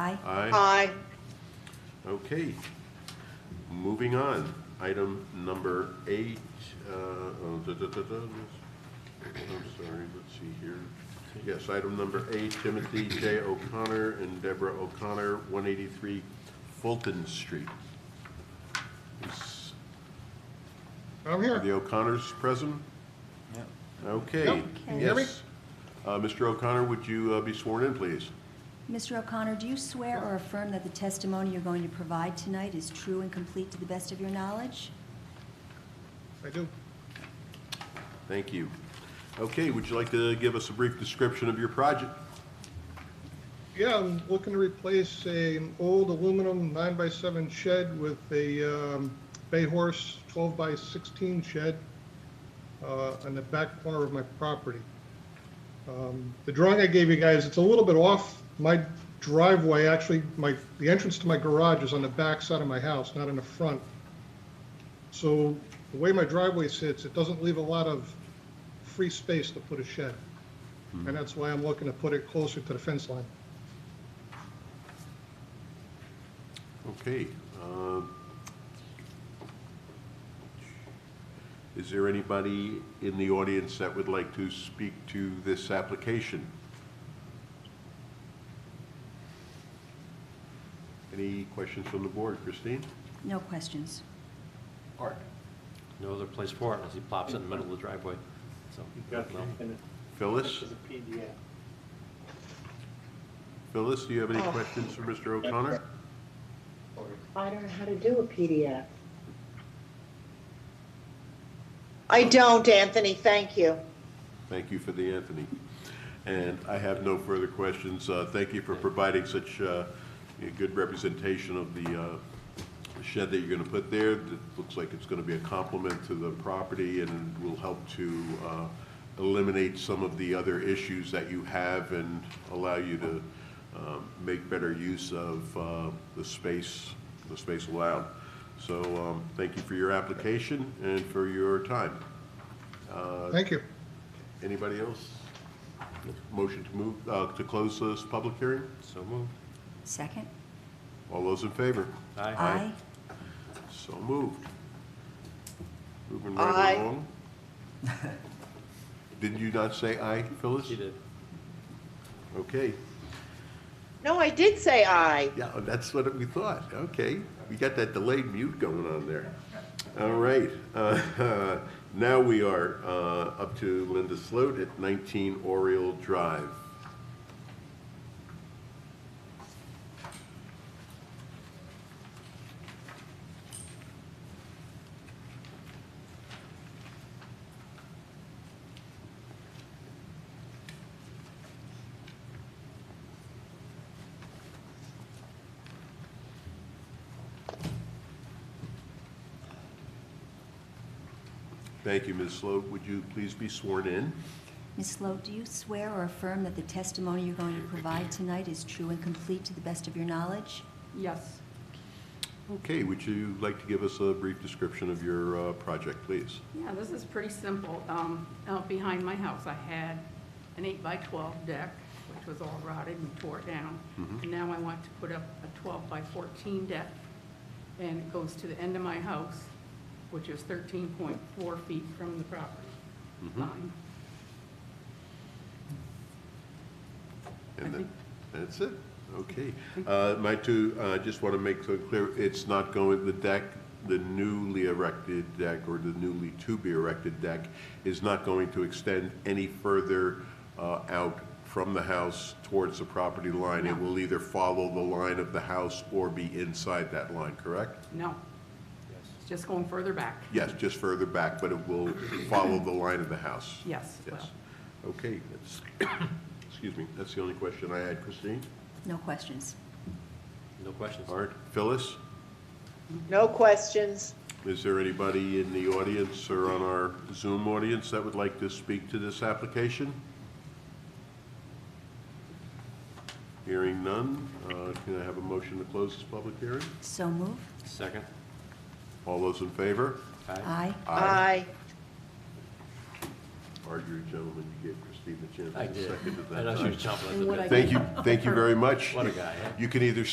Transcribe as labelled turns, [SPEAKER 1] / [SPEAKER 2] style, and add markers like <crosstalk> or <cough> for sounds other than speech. [SPEAKER 1] Aye.
[SPEAKER 2] Aye.
[SPEAKER 3] Aye.
[SPEAKER 2] Okay. Moving on, item number eight, uh, oh, da, da, da, da, yes. I'm sorry, let's see here. Yes, item number eight, Timothy J. O'Connor and Deborah O'Connor, 183 Fulton Street. Is-
[SPEAKER 4] I'm
[SPEAKER 2] Are
[SPEAKER 4] here.
[SPEAKER 2] the O'Connors present? Okay,
[SPEAKER 4] Yep.
[SPEAKER 1] Can you
[SPEAKER 4] hear me?
[SPEAKER 2] yes. Uh, Mr. O'Connor, would you uh, be sworn in, please?
[SPEAKER 1] Mr. O'Connor, do you swear or affirm that the testimony you're going to provide tonight is true and complete to the best of your knowledge?
[SPEAKER 4] I do.
[SPEAKER 2] Thank you. Okay, would you like to give us a brief description of your project?
[SPEAKER 4] Yeah, I'm looking to replace a- an old aluminum nine by seven shed with a um, bay horse twelve by sixteen shed uh, on the back corner of my property. Um, The drawing I gave you guys, it's a little bit off. My driveway, actually, my, the entrance to my garage is on the back side of my house, not in the front. So the way my driveway sits, it doesn't leave a lot of free space to put a shed. And that's why I'm looking to put it closer to the fence line.
[SPEAKER 2] Okay. um, Is there anybody in the audience that would like to speak to this application? Any questions from the board? Christine?
[SPEAKER 1] No questions.
[SPEAKER 2] Art?
[SPEAKER 5] No other place for it unless he plops it in the middle of the driveway, so. no.
[SPEAKER 2] Phyllis?
[SPEAKER 6] As a PDF.
[SPEAKER 2] Phyllis, do you have any
[SPEAKER 3] Oh.
[SPEAKER 2] questions for Mr. O'Connor?
[SPEAKER 6] I don't know how to do a PDF.
[SPEAKER 3] I don't, Anthony, thank you.
[SPEAKER 2] Thank you for the Anthony. And I have no further questions. Uh, Thank you for providing such uh, a good representation of the uh, shed that you're going to put there. It looks like it's going to be a complement to the property and will help to uh, eliminate some of the other issues that you have and allow you to um, make better use of uh, the space, the space allowed. So um, thank you for your application and for your time.
[SPEAKER 4] Thank you.
[SPEAKER 2] Anybody else? Motion to move, uh, to close this public hearing?
[SPEAKER 5] So moved.
[SPEAKER 1] Second?
[SPEAKER 2] All those in favor?
[SPEAKER 5] Aye.
[SPEAKER 1] Aye.
[SPEAKER 2] So moved. Moving right
[SPEAKER 3] Aye.
[SPEAKER 2] along. Did you not say aye, Phyllis?
[SPEAKER 5] He did.
[SPEAKER 2] Okay,
[SPEAKER 3] No, I did say aye.
[SPEAKER 2] yeah, that's what we thought, okay. We got that delayed mute going on there. All right, <laughs> Uh, now we are uh, up to Linda Sloat at 19 Oriole Drive. Thank you, Ms. Sloat. Would you please be sworn in?
[SPEAKER 1] Ms. Sloat, do you swear or affirm that the testimony you're going to provide tonight is true and complete to the best of your knowledge?
[SPEAKER 7] Yes.
[SPEAKER 2] Okay, would you like to give us a brief description of your uh, project, please?
[SPEAKER 7] Yeah, this is pretty simple. Um, Out behind my house, I had an eight by 12 deck, which was all rotted and tore down. And now I want to put up a 12 by 14 deck, and it goes to the end of my house, which is 13.4 feet from the property line.
[SPEAKER 2] And then, that's it? Okay. Uh, My two, I just want to make so clear, it's not going, the deck, the newly erected deck or the newly to-be erected deck is not going to extend any further uh, out from the house towards the property line. It
[SPEAKER 7] No.
[SPEAKER 2] will either follow the line of the house or be inside that line, correct?
[SPEAKER 7] No. It's just going further back.
[SPEAKER 2] Yes, just further back, but it will follow the line of the house.
[SPEAKER 7] Yes, it
[SPEAKER 2] Yes. Okay, that's, excuse me, that's the only question I had. Christine?
[SPEAKER 1] No questions.
[SPEAKER 5] No questions.
[SPEAKER 2] Art? Phyllis?
[SPEAKER 3] No questions.
[SPEAKER 2] Is there anybody in the audience or on our Zoom audience that would like to speak to this application? Hearing none, uh, can I have a motion to close this public hearing?
[SPEAKER 1] So move?
[SPEAKER 5] Second.
[SPEAKER 2] All those in favor?
[SPEAKER 5] Aye.
[SPEAKER 1] Aye.
[SPEAKER 3] Aye.
[SPEAKER 2] Are you gentlemen you get, Chris? Steve
[SPEAKER 5] I
[SPEAKER 2] Manchin.
[SPEAKER 5] did.
[SPEAKER 2] Seconded that.
[SPEAKER 5] I know she was chomping at the
[SPEAKER 6] And what
[SPEAKER 5] bit.
[SPEAKER 6] I
[SPEAKER 2] Thank you, thank you very much.
[SPEAKER 5] What a guy, eh?
[SPEAKER 2] You can either